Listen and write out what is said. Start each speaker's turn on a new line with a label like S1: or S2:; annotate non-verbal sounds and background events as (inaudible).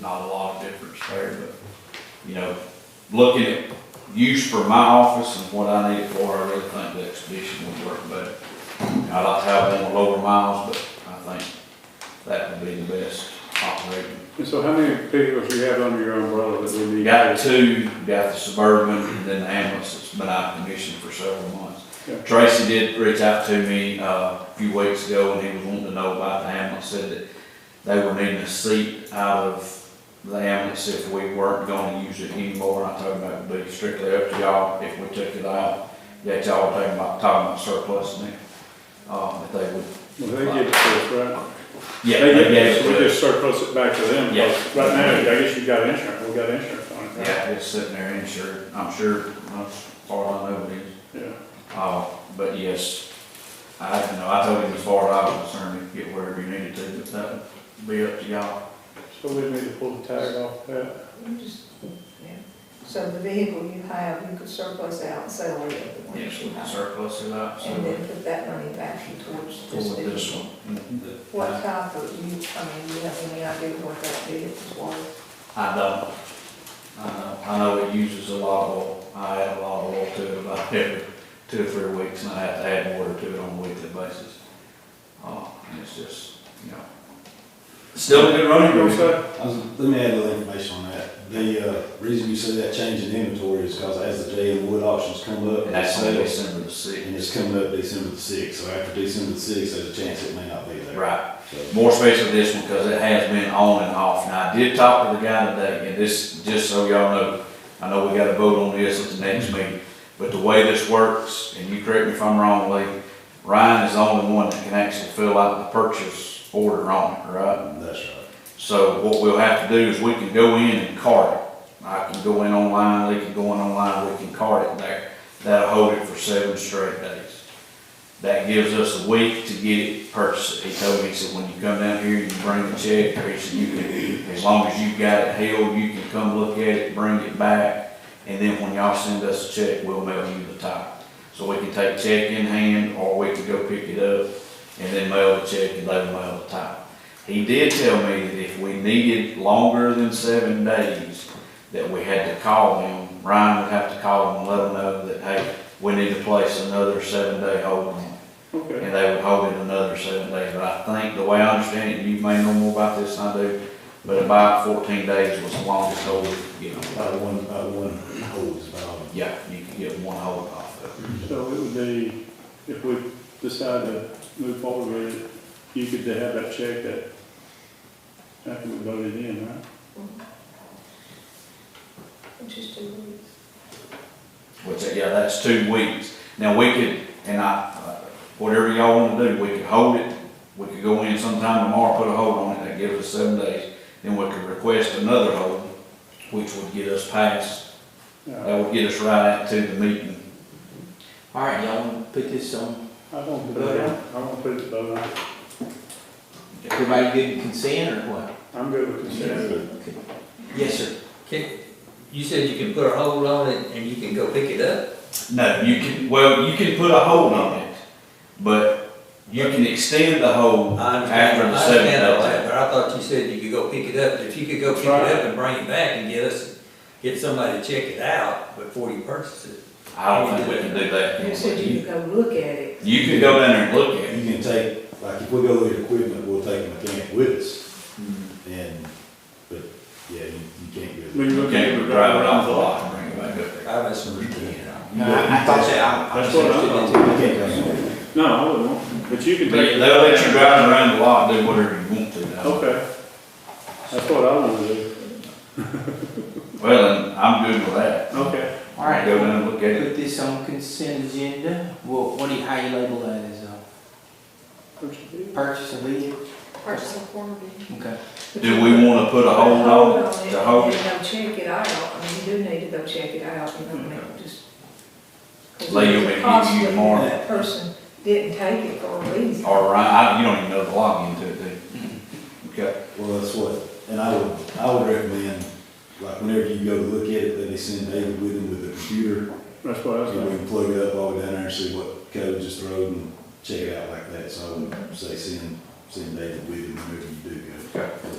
S1: not a lot of difference there, but, you know, looking at use for my office and what I need it for, I really think the expedition would work better. I'd like to have one with lower miles, but I think that would be the best operating.
S2: And so how many vehicles you have under your umbrella that we
S1: We
S2: need?
S1: got two, we got the Suburban, and then the ambulance that's been out of commission for several months.
S2: Yeah.
S1: Tracy did reach out to me, uh, a few weeks ago, and he was wanting to know about the ambulance, said that they were needing a seat out of the ambulance if we weren't gonna use it anymore, and I told him that would be strictly up to y'all if we took it out. That y'all were talking about, talking about surplus and it, um, if they would,
S2: Well, they give it to us, right?
S1: yeah, they gave it
S2: so We
S1: to us.
S2: just surplus it back to them.
S1: Yeah.
S2: Right now, I guess you got insurance, we got insurance on it, right?
S1: Yeah, it's sitting there insured, I'm sure, as far as I know it is.
S2: Yeah.
S1: Uh, but yes, I, you know, I told him as far as I was concerned, you could get wherever you needed to, but that would be up to y'all.
S2: So we need to pull the tag off that.
S3: You just- yeah. So the vehicle you have, you could surplus out and sell the other one
S1: Yes,
S3: that you
S1: we can
S3: have.
S1: surplus it up,
S3: And
S1: so
S3: then put that money back towards this
S1: for this
S3: vehicle.
S1: one.
S3: What type of, you, I mean, you have any idea what that vehicle's worth?
S1: I don't, I don't, I know it uses a lot of oil, I add a lot of oil to it about (laughs) every two or three weeks, and I have to add water to it on a weekly basis. Uh, and it's just, you know, still a good running
S2: You know what I'm
S1: group.
S2: saying?
S4: I was- Um, Let me add a little information on that. The uh, reason you see that change in inventory is because as the J and Wood auctions come
S1: And
S4: up, and
S1: that's on
S4: sales,
S1: December the sixth.
S4: and it's coming up December the sixth, so after December the sixth, there's a chance it may not be there.
S1: Right.
S4: So,
S1: more space for this one because it has been on and off. Now, I did talk to the guy today, and this, just so y'all know, I know we got a vote on this at the next meeting, but the way this works, and you correct me if I'm wrong, Lee, Ryan is the only one that can actually fill out the purchase order on it, right?
S4: um, That's right.
S1: So what we'll have to do is we can go in and cart it. I can go in online, Lee can go in online, we can cart it there. That'll hold it for seven straight days. That gives us a week to get it purchased. He told me, he said, when you come down here, you can bring the check, or he said, you can, as long as you've got it held, you can come look at it, bring it back. And then when y'all send us a check, we'll mail you the title. So we can take check in hand, or we can go pick it up, and then mail the check, and they mail the title. He did tell me that if we needed longer than seven days, that we had to call him. Ryan would have to call him and let him know that, hey, we need to place another seven-day hold on it.
S2: Okay.
S1: And they would hold it another seven days. But I think, the way I understand it, you may know more about this than I do, but about fourteen days was the longest hold we could get on.
S4: About one, about one hole is about all.
S1: Yeah, you could get one hold off of it.
S2: So it would be, if we decide to move forward with it, you could have that check that, after we voted in, right?
S3: Which is two weeks.
S1: Which, yeah, that's two weeks. Now, we could, and I, uh, whatever y'all wanna do, we could hold it, we could go in sometime tomorrow, put a hold on it, that gives us seven days. Then we could request another hold, which would get us past,
S2: Yeah.
S1: that would get us right into the meeting.
S5: All right, y'all wanna put this on,
S2: I don't, put it on. I don't put it above, that.
S5: everybody good consent or what?
S2: I'm good with consent.
S5: Okay. Yes, sir.
S6: Can, you said you can put a hold on it and you can go pick it up?
S1: No, you can, well, you can put a hold on it, but you can extend the hold
S6: I understand-
S1: after the
S6: I
S1: seven
S6: understand all that,
S1: days.
S6: But I thought you said you could go pick it up, if you could go pick it up and bring it back and get us, get somebody to check it out before you purchase it.
S1: I don't think we can do
S3: You said
S1: that.
S3: you could go look at it.
S1: You can go down there and look at it.
S4: You can take, like, if we go with equipment, we'll take a mechanic with us, and, but, yeah, you, you can't do it.
S2: When you
S1: You
S2: look at
S1: can't
S2: it,
S1: drive it off the lot and bring it back up there.
S6: I misunderstood.
S4: No, I- I thought that,
S2: That's what I'm
S4: You can't come in.
S2: No, I wouldn't want, but you can
S1: They'll
S2: take. it.
S1: let you drive around the lot, do whatever you want to now.
S2: Okay. That's what I want to do.
S1: Well, then, I'm good with that.
S2: Okay.
S5: All right,
S1: Go down and look at it.
S5: put this on consent agenda, what, what do you, how you label that as, uh, purchase of vehicle?
S3: Purchase of quarter vehicle.
S5: Okay.
S1: Do we wanna put a hold on it to hold
S3: And
S1: it?
S3: go check it out, I mean, you do need to go check it out, you know, I mean, just. 'cause
S1: Lay your
S3: it's
S1: big
S3: possible
S1: you tomorrow.
S3: that Person didn't take it for a reason.
S1: Or, Ryan, I, you don't even know the log into it, do you?
S2: Mm-hmm.
S1: Okay,
S4: Well, that's what, and I would, I would recommend, like, whenever you go to look at it, that they send David with them with a computer,
S2: That's what I was
S4: and we
S2: doing.
S4: can plug it up all the way down there and see what code just thrown and check it out like that, so I would say send, send David with him whenever you do go.
S1: okay.